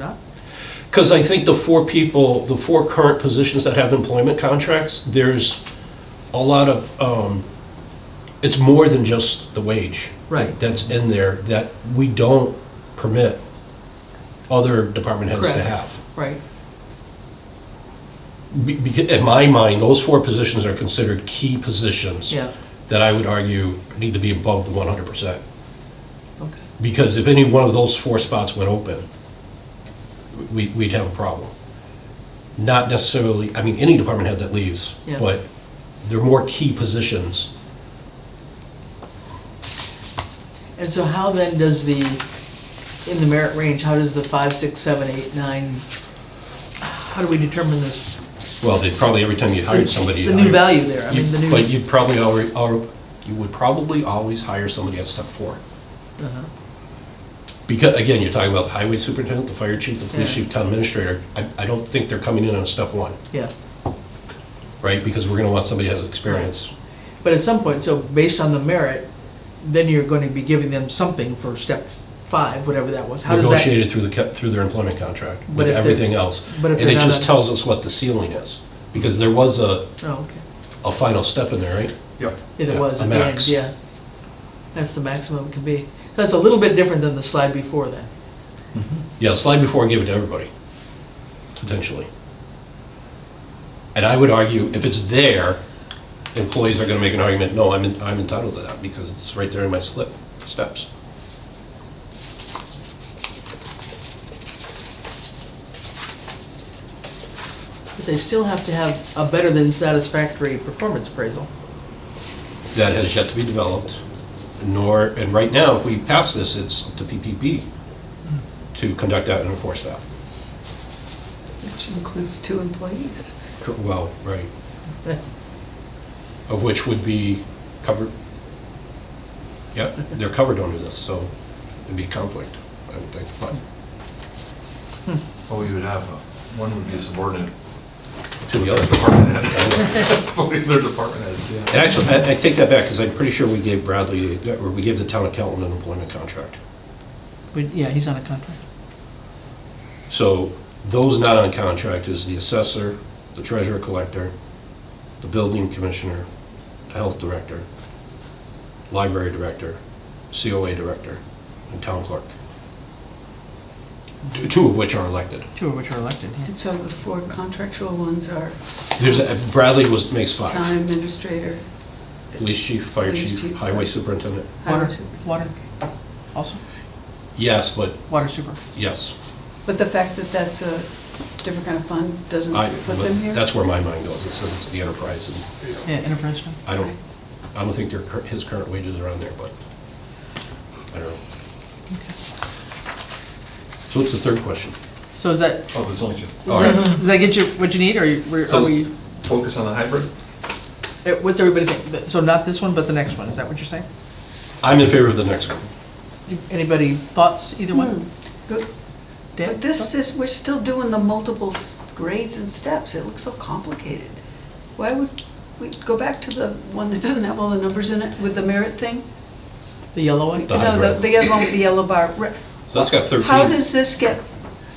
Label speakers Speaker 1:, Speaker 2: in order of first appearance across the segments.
Speaker 1: Not?
Speaker 2: Because I think the four people, the four current positions that have employment contracts, there's a lot of, um, it's more than just the wage.
Speaker 1: Right.
Speaker 2: That's in there that we don't permit other department heads to
Speaker 1: Correct.
Speaker 2: have.
Speaker 1: Right,
Speaker 2: Be- beca- In my mind, those four positions are considered key positions
Speaker 1: yeah,
Speaker 2: that I would argue need to be above the 100%.
Speaker 1: okay,
Speaker 2: Because if any one of those four spots went open, we, we'd have a problem. Not necessarily, I mean, any department head that leaves,
Speaker 1: Yeah.
Speaker 2: but there are more key positions.
Speaker 1: and so how then does the, in the merit range, how does the five, six, seven, eight, nine, how do we determine this?
Speaker 2: Well, they probably, every time you hired somebody. you
Speaker 1: The new
Speaker 2: hired-
Speaker 1: value there, I
Speaker 2: you-
Speaker 1: mean, the
Speaker 2: But
Speaker 1: new.
Speaker 2: you'd probably already, al- you would probably always hire somebody at step four.
Speaker 1: Uh-huh.
Speaker 2: Because, again, you're talking about the highway superintendent, the fire chief, the police
Speaker 1: Yeah.
Speaker 2: chief, town administrator. I, I don't think they're coming in on step one,
Speaker 1: Yeah,
Speaker 2: right? Because we're gonna want somebody who has experience.
Speaker 1: but at some point, so based on the merit, then you're going to be giving them something for step five, whatever that was. How does that-
Speaker 2: negotiated through the, ca- through their employment contract
Speaker 1: But
Speaker 2: with
Speaker 1: if they're-
Speaker 2: everything else.
Speaker 1: but if
Speaker 2: And
Speaker 1: they're
Speaker 2: it
Speaker 1: not
Speaker 2: just
Speaker 1: a-
Speaker 2: tells us what the ceiling is, because there was a,
Speaker 1: Oh, okay,
Speaker 2: a final step in there, right?
Speaker 3: Yep.
Speaker 1: it
Speaker 2: Yeah,
Speaker 1: was,
Speaker 2: a
Speaker 1: at the end,
Speaker 2: max.
Speaker 1: yeah. That's the maximum it can be. That's a little bit different than the slide before then.
Speaker 2: Yeah, slide before and give it to everybody, potentially. And I would argue, if it's there, employees are gonna make an argument, no, I'm, en- I'm entitled to that, because it's right there in my slip, steps.
Speaker 1: But they still have to have a better than satisfactory performance appraisal.
Speaker 2: That has yet to be developed, nor, and right now, if we pass this, it's up to PPP to conduct that and enforce that.
Speaker 4: Which includes two employees.
Speaker 2: Cor- Well, right. Of which would be covered, yep, they're covered under this, so it'd be a conflict, I would think, but
Speaker 3: Well, Oh, we would have, a- one would be subordinate
Speaker 2: to the other.
Speaker 3: department head. Voting their department heads, yeah.
Speaker 2: And actually, I I take that back, because I'm pretty sure we gave Bradley, or we gave the town accountant an employment contract.
Speaker 1: But, yeah, he's on a contract.
Speaker 2: So those not on contract is the assessor, the treasurer collector, the building commissioner, the health director, library director, COA director, and town clerk. Two- Two of which are elected.
Speaker 1: Two of which are elected, yeah.
Speaker 4: And so the four contractual ones are
Speaker 2: There's, a- Bradley was, makes
Speaker 4: town
Speaker 2: five.
Speaker 4: administrator,
Speaker 2: Police chief, fire
Speaker 4: Police
Speaker 2: chief,
Speaker 4: chief.
Speaker 2: highway superintendent.
Speaker 4: highway
Speaker 1: Water,
Speaker 4: super-
Speaker 1: water, also,
Speaker 2: Yes, but,
Speaker 1: water super.
Speaker 2: yes.
Speaker 4: But the fact that that's a different kind of fund doesn't
Speaker 2: I,
Speaker 4: put them
Speaker 2: but
Speaker 4: here?
Speaker 2: that's where my mind goes. It says it's the enterprise, and
Speaker 1: Yeah, enterprise fund.
Speaker 2: I don't, I don't think their, cur- his current wages are on there, but, I don't know. So what's the third question?
Speaker 1: So is that,
Speaker 3: Oh, there's only two.
Speaker 2: All right.
Speaker 1: does that get you what you need, or you- we're- are
Speaker 3: So-
Speaker 1: we,
Speaker 3: Focus on the hybrid?
Speaker 1: eh, what's everybody think? Th- So not this one, but the next one, is that what you're saying?
Speaker 2: Mm-hmm. I'm in favor of the next one.
Speaker 1: Anybody thoughts, either
Speaker 4: Hmm.
Speaker 1: one?
Speaker 4: But
Speaker 1: Dan?
Speaker 4: but this is, we're still doing the multiple s- grades and steps. It looks so complicated. Why would we go back to the one that doesn't have all the numbers in it with the merit thing?
Speaker 1: The yellow one?
Speaker 2: The
Speaker 4: No,
Speaker 2: hybrid.
Speaker 4: the- the other one with the yellow bar. Re-
Speaker 2: So that's got 13.
Speaker 4: How does this get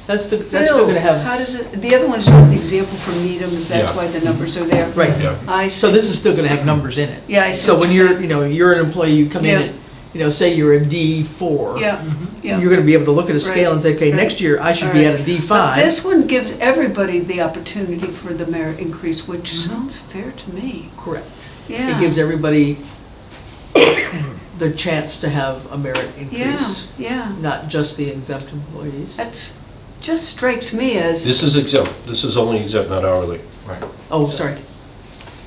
Speaker 1: That's the, that's still
Speaker 4: filled?
Speaker 1: gonna
Speaker 4: How
Speaker 1: have,
Speaker 4: does it, the other one is just the example from Needham, is that's
Speaker 2: Yeah.
Speaker 4: why the numbers are there.
Speaker 1: Right.
Speaker 2: Yeah.
Speaker 4: I
Speaker 1: so
Speaker 4: see.
Speaker 1: this is still gonna have numbers in it.
Speaker 4: Yeah, I see
Speaker 1: So
Speaker 4: what
Speaker 1: when
Speaker 4: you're
Speaker 1: you're,
Speaker 4: saying.
Speaker 1: you know, you're an employee, you come in,
Speaker 4: Yeah.
Speaker 1: and you know, say you're a D four.
Speaker 4: Yeah, yeah.
Speaker 1: You're gonna be able to look at a
Speaker 4: Right,
Speaker 1: scale and say, okay,
Speaker 4: right.
Speaker 1: next year I should
Speaker 4: All
Speaker 1: be
Speaker 4: right.
Speaker 1: at a D
Speaker 4: But
Speaker 1: five.
Speaker 4: this one gives everybody the opportunity for the merit increase, which sounds fair to me.
Speaker 1: Correct.
Speaker 4: Yeah.
Speaker 1: Uh-huh. It gives everybody the chance to have a merit
Speaker 4: Yeah,
Speaker 1: increase,
Speaker 4: yeah.
Speaker 1: not just the exempt employees.
Speaker 4: That's, just strikes me as,
Speaker 2: This is exempt, this is only exempt, not hourly.
Speaker 3: Right.
Speaker 1: Oh, sorry.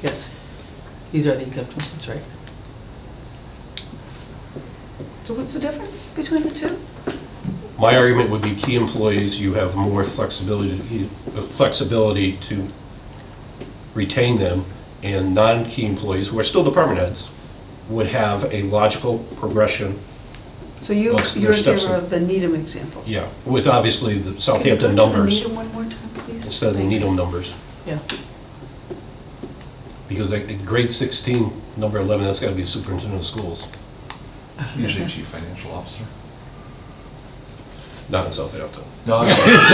Speaker 1: Yes. These are the exempt ones, right?
Speaker 4: so what's the difference between the two?
Speaker 2: My argument would be key employees, you have more flexibility, uh, flexibility to retain them, and non-key employees, who are still department heads, would have a logical progression,
Speaker 4: So you,
Speaker 2: Well, so
Speaker 4: you're in
Speaker 2: there's steps
Speaker 4: favor
Speaker 2: in-
Speaker 4: of the Needham example?
Speaker 2: yeah, with obviously the Southampton
Speaker 4: Can you
Speaker 2: numbers
Speaker 4: go to the Needham one more time, please?
Speaker 2: instead of the
Speaker 4: Thanks.
Speaker 2: Needham numbers.
Speaker 1: Yeah.
Speaker 2: Because like grade 16, number 11, that's got to be superintendent of schools.
Speaker 3: Usually chief financial officer.
Speaker 2: not in South Hampton.
Speaker 3: No, I-